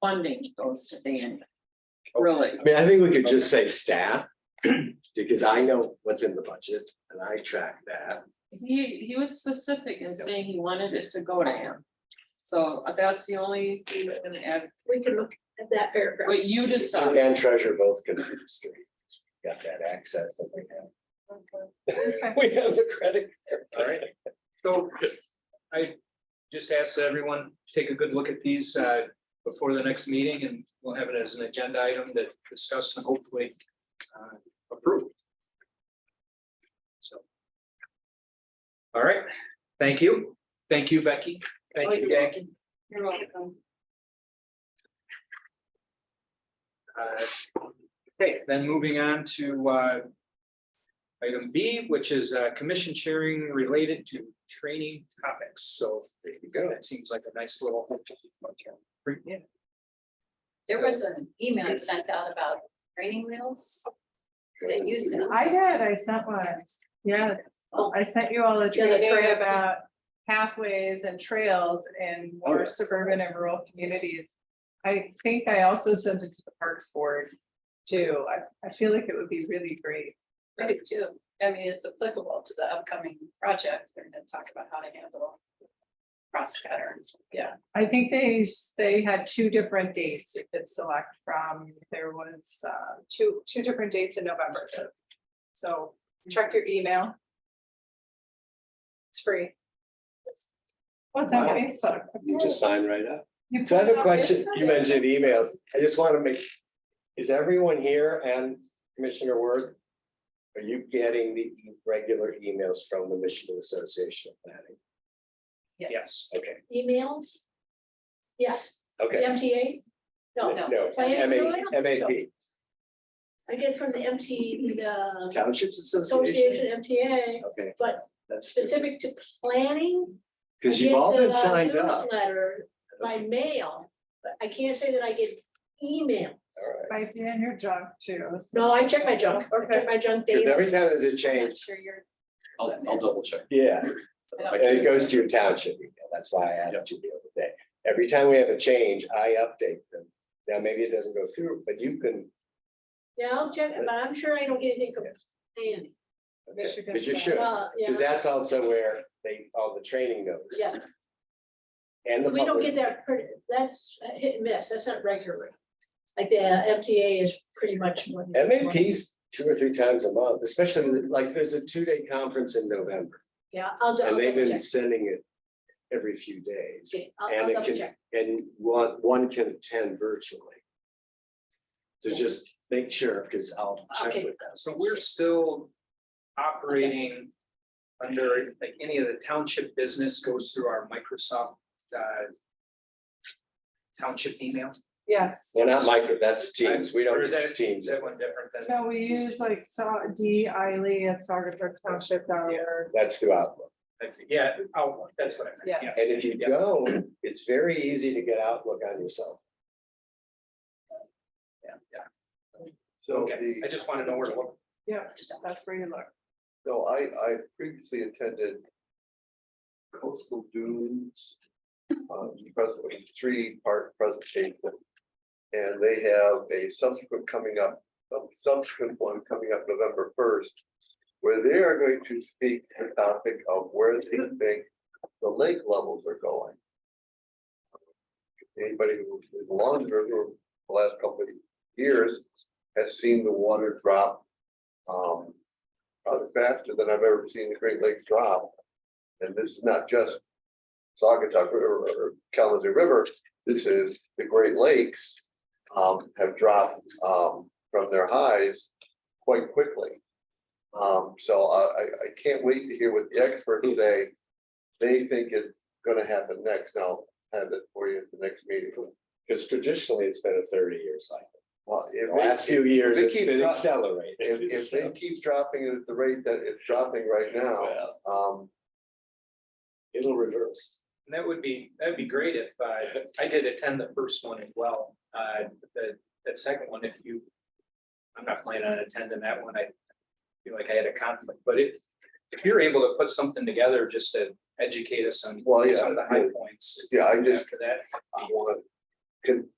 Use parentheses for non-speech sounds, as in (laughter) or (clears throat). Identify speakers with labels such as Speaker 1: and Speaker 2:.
Speaker 1: funding goes to Dan. Really,
Speaker 2: I mean, I think we could just say staff, (clears throat) because I know what's in the budget and I track that.
Speaker 1: he, he was specific in saying he wanted it to go to him. So uh, that's the only thing we're gonna add,
Speaker 3: We can look at that paragraph.
Speaker 1: what you decide.
Speaker 2: And treasure both can be distributed. Got that access that we have. We have the credit.
Speaker 4: All right. So I just asked everyone, take a good look at these uh, before the next meeting and we'll have it as an agenda item to discuss and hopefully uh, approve. So. All right, thank you. Thank you, Becky. Thank you, Jackie.
Speaker 1: You're welcome.
Speaker 4: Uh, Okay, then moving on to uh, item B, which is uh, commission sharing related to training topics. So there you go. That seems like a nice little. Yeah.
Speaker 5: There was an email sent out about training wheels. That you sent.
Speaker 6: I did, I sent one, yeah, I sent you all a
Speaker 3: Yeah, the
Speaker 6: training
Speaker 3: trails.
Speaker 6: about pathways and trails in
Speaker 2: Oh, yeah.
Speaker 6: more suburban and rural communities. I think I also sent it to the Parks Board too, I, I feel like it would be really great.
Speaker 5: I did too. I mean, it's applicable to the upcoming project. They're gonna talk about how to handle. Cross patterns. Yeah.
Speaker 6: I think they, s- they had two different dates you could select from, there was, uh, two, two different dates in November. So check your email. It's free. What's on
Speaker 2: Wow.
Speaker 6: Facebook?
Speaker 2: You just sign right up.
Speaker 6: You
Speaker 2: So I
Speaker 6: put
Speaker 2: have
Speaker 6: it
Speaker 2: a
Speaker 6: on
Speaker 2: question,
Speaker 6: Facebook?
Speaker 2: you mentioned emails, I just want to make, is everyone here and Commissioner Worth? Are you getting the regular emails from the Michigan Association of Planning?
Speaker 4: Yes.
Speaker 2: Okay,
Speaker 3: Emails? Yes, the
Speaker 2: okay.
Speaker 3: MTA? No,
Speaker 2: No,
Speaker 3: I-
Speaker 2: M
Speaker 3: no, I
Speaker 2: A,
Speaker 3: don't
Speaker 2: M
Speaker 3: think
Speaker 2: A
Speaker 3: so.
Speaker 2: P,
Speaker 3: I get from the MT, the
Speaker 2: Townships Association,
Speaker 3: Association MTA,
Speaker 2: okay,
Speaker 3: but
Speaker 2: that's,
Speaker 3: specific to planning. I
Speaker 2: because you've
Speaker 3: get
Speaker 2: all been
Speaker 3: the uh,
Speaker 2: signed up.
Speaker 3: Newsletter by mail, but I can't say that I get email.
Speaker 6: Might be in your junk too.
Speaker 3: No, I check my junk, I check my junk
Speaker 2: Because
Speaker 3: daily.
Speaker 2: every time there's a
Speaker 5: I'm
Speaker 2: change,
Speaker 5: not sure you're.
Speaker 7: I'll, I'll double check.
Speaker 2: yeah,
Speaker 5: I don't-
Speaker 2: and it goes to your township email, that's why I asked you the other day. Every time we have a change, I update them. Now, maybe it doesn't go through, but you can,
Speaker 3: Yeah, I'll check, but I'm sure I don't get anything from planning.
Speaker 6: Michigan
Speaker 2: because you
Speaker 6: State.
Speaker 2: should.
Speaker 3: Well, yeah,
Speaker 2: Because that's also where they, all the training goes.
Speaker 3: yeah,
Speaker 2: And the
Speaker 3: we don't get
Speaker 2: public,
Speaker 3: that, pretty- that's a hit and miss, that's not regular. Like the MTA is pretty much. one-
Speaker 2: MAPs two or three times a month, especially like there's a two-day conference in November.
Speaker 3: Yeah, I'll, I'll
Speaker 2: And they've
Speaker 3: double
Speaker 2: been
Speaker 3: check.
Speaker 2: sending it every few days.
Speaker 3: Okay, I'll-
Speaker 2: And
Speaker 3: I'll
Speaker 2: it
Speaker 3: double
Speaker 2: can,
Speaker 3: check.
Speaker 2: and one, one can attend virtually. So just make sure, because I'll check
Speaker 3: Okay.
Speaker 2: with them.
Speaker 4: So we're still operating under, like, any of the township business goes through our Microsoft uh, township email.
Speaker 6: Yes,
Speaker 2: Well, not micro, that's Teams. We
Speaker 4: Or
Speaker 2: don't
Speaker 4: is that,
Speaker 2: use
Speaker 4: is
Speaker 2: Teams.
Speaker 4: that one different than?
Speaker 6: so we use like saw D Eiley at sargenttownship.org.
Speaker 2: That's through Outlook.
Speaker 4: I think- Yeah, oh, that's what I meant.
Speaker 6: Yes.
Speaker 2: And if you
Speaker 4: Yeah.
Speaker 2: go, it's very easy to get Outlook on yourself.
Speaker 4: Yeah, yeah.
Speaker 8: So
Speaker 4: Okay, I
Speaker 8: the,
Speaker 4: just want to know where to look.
Speaker 6: Yeah, that's where you look.
Speaker 8: so I, I previously attended coastal dunes, um, presently three part presentation. And they have a subsequent coming up, a subsequent one coming up November first, where they are going to speak to the topic of where they think the lake levels are going. Anybody who's been along the river the last couple of years has seen the water drop. Um, probably faster than I've ever seen the Great Lakes drop. And this is not just Saugatuck or or Kalamazoo River, this is the Great Lakes um, have dropped um, from their highs quite quickly. Um, so I, I, I can't wait to hear what the experts say. They think it's gonna happen next. and I'll have that for you at the next meeting.
Speaker 2: Because traditionally, it's been a thirty-year cycle.
Speaker 8: Well, if
Speaker 2: The
Speaker 8: they-
Speaker 2: last few years,
Speaker 8: they
Speaker 2: it's
Speaker 8: keep
Speaker 2: been
Speaker 8: drop-
Speaker 2: accelerating.
Speaker 8: If, if
Speaker 2: So,
Speaker 8: they keep dropping it at the rate that it's dropping right now,
Speaker 2: well,
Speaker 8: um,
Speaker 2: It'll reverse.
Speaker 4: And That would be, that'd be great if, uh, I did attend the first one as well, uh, the, that second one, if you. I'm not planning on attending that one, I feel like I had a conflict, but if, if you're able to put something together just to educate us on.
Speaker 8: Well, yeah,
Speaker 4: Some of the high points.
Speaker 8: yeah, I just,
Speaker 4: After that,
Speaker 8: I want to